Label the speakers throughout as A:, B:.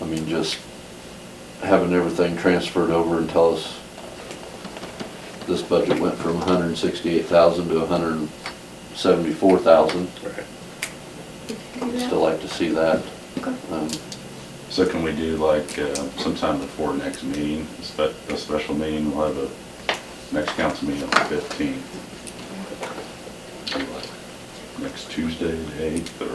A: I mean, just having everything transferred over and tell us this budget went from hundred and sixty-eight thousand to hundred and seventy-four thousand.
B: Right.
C: We can do that.
A: Still like to see that.
C: Okay.
A: Um,
B: So can we do like uh, sometime before next meeting, a spe- a special meeting, we'll have a, next council meeting on the 15th? Next Tuesday, the 8th, or?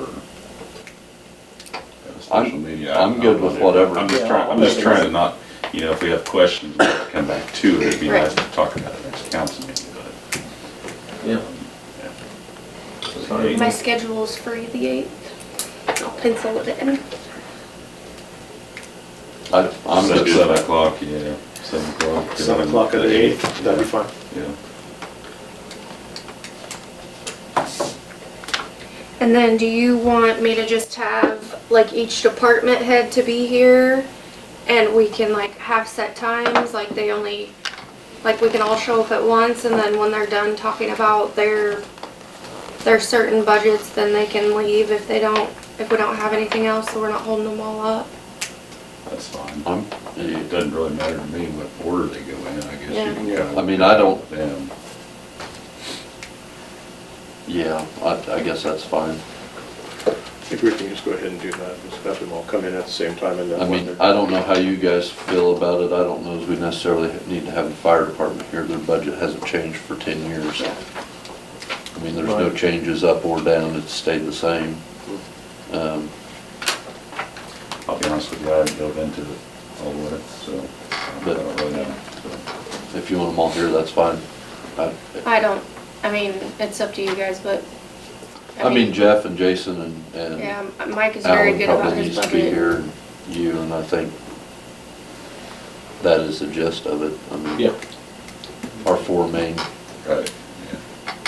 B: have a special
A: I'm-
B: meeting? I don't
A: I'm good
B: know.
A: with whatever.
B: I'm just
D: Yeah,
B: trying,
D: I'll
B: I'm just
D: make it
B: trying to
D: easy.
B: not, you know, if we have questions, we can come back to it, it'd be
C: Right.
B: nice to talk about it next council meeting, but.
D: Yeah.
B: yeah. So the
D: Sorry.
B: 8th.
C: My schedule's free the eighth. I'll pencil it in.
A: I, I'm
B: Seven-
A: good with
B: Seven
A: that.
B: o'clock, yeah, seven o'clock.
D: Seven o'clock at the eighth, that'd be fine.
B: Yeah.
C: And then do you want me to just have like each department head to be here? And we can like have set times, like they only, like we can all show up at once and then when they're done talking about their, their certain budgets, then they can leave if they don't, if we don't have anything else, so we're not holding them all up.
B: That's fine.
A: I'm,
B: It doesn't really matter to me what order they go in, I guess.
C: Yeah.
B: you can kind of-
A: I mean, I don't,
B: Them.
A: yeah, I, I guess that's fine.
E: If we can just go ahead and do that, just have them all come in at the same time and
A: I
E: then when
A: mean,
E: they're.
A: I don't know how you guys feel about it. I don't know if we necessarily need to have the fire department here. Their budget hasn't changed for ten years. I mean, there's no
D: Right.
A: changes up or down. It's stayed the same. Um,
B: I'll be honest with you, I haven't dove into it all the way, so I
A: But-
B: don't really know. so.
A: If you want them all here, that's fine. I,
C: I don't, I mean, it's up to you guys, but.
A: I mean, Jeff and Jason and,
C: Yeah,
A: and
C: Mike is very
A: Um, Alan
C: good about
A: probably
C: his
A: needs to be
C: budget.
A: here, and you, and I think that is the gist of it. I mean,
D: Yeah.
A: Our four main
B: Right,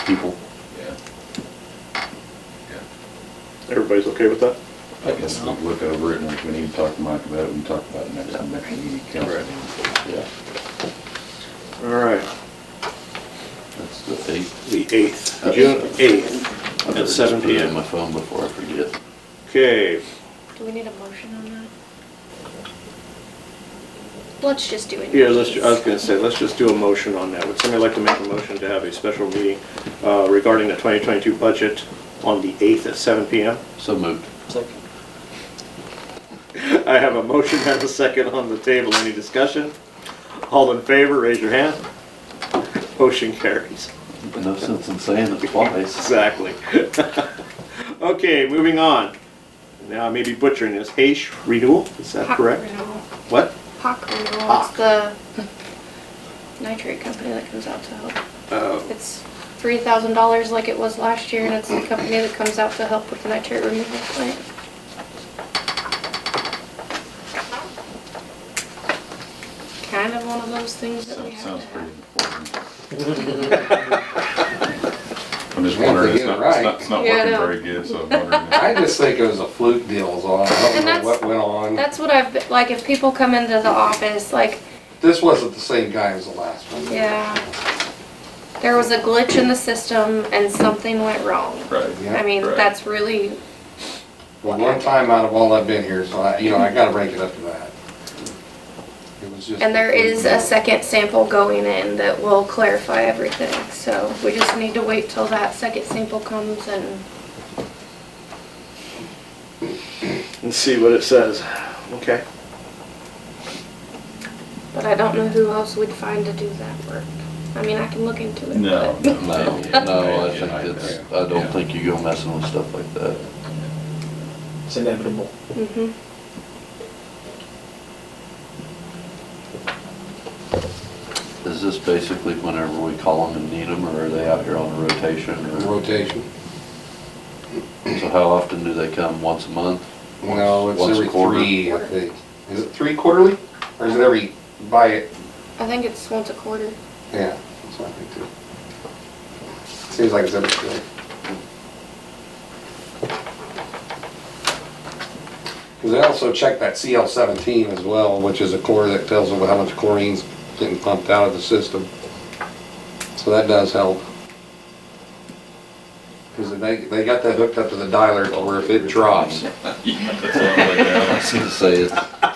A: people.
B: yeah, yeah. Yeah.
E: Everybody's okay with that?
B: I guess we'll look over it and if we need to talk to Mike about it, we can talk about it next time, next meeting. council
E: Right.
B: meeting.
A: Yeah,
E: All right,
A: that's the eight.
E: the eighth,
A: Uh,
E: June eighth.
A: I better
E: At 7
A: just put it
E: PM.
A: in my phone before I forget.
E: Okay,
C: Do we need a motion on that? Let's just do it.
E: yeah, let's, ju- I was gonna say, let's just do a motion on that. Would somebody like to make a motion to have a special meeting uh, regarding the twenty twenty-two budget on the eighth at seven P M?
A: So moved.
D: Second.
E: I have a motion and a second on the table. Any discussion? All in favor, raise your hand. Motion carries.
A: No sense in saying it twice.
E: Exactly. Okay, moving on. Now I may be butchering this. Hayes renewal, is that
C: Hawk
E: correct?
C: renewal.
E: What?
C: Hawk renewal, it's
E: Hawk.
C: the nitrate company that comes out to help.
E: Oh,
C: It's three thousand dollars like it was last year, and it's the company that comes out to help with the nitrate removal plant. Kind of one of those things that we
B: So-
C: have to
B: Sounds pretty
C: have.
B: important. I'm just wondering, it's
F: get it
B: not, it's
F: right.
B: not, it's not
C: Yeah, I
B: working
C: know.
B: very good, so I'm wondering. if-
F: I just think it was a fluke deal is all. I don't
C: And
F: know
C: that's-
F: what went on.
C: That's what I've, been- like, if people come into the office, like,
F: This wasn't the same guy as the last one.
C: Yeah. There was a glitch in the system and something went wrong.
B: Right.
C: I
F: Yeah.
C: mean,
B: Right.
C: that's really,
F: Well, one time out of all I've been here, so I, you know, I gotta break it up to that. It was just.
C: and there is a
F: a
C: second sample going in that will clarify everything. So we just need to wait till that second sample comes and
E: Let's see what it says. Okay.
C: But I don't know who else we'd find to do that work. I mean, I can look into it.
B: No,
C: but-
B: no,
A: No, no, I think it's, I don't think you go messing with stuff like that.
D: It's inevitable.
C: Mhm.
A: Is this basically whenever we call them and need them, or are they out here on a rotation? or-
F: Rotation.
A: So how often do they come? Once a month?
F: No, it's
A: Once a
F: every
A: quarter?
F: three, I think. Is it three quarterly? Or is it every, by it?
C: I think it's once a quarter.
F: Yeah, that's what I think too. Seems like it's every quarter. Cause they also check that CL seventeen as well, which is a core that tells them how much chlorine's getting pumped out of the system. So that does help. 'Cause Because they, they got that hooked up to the dialer, or if it drops,
B: That's all the way down.
A: Say it.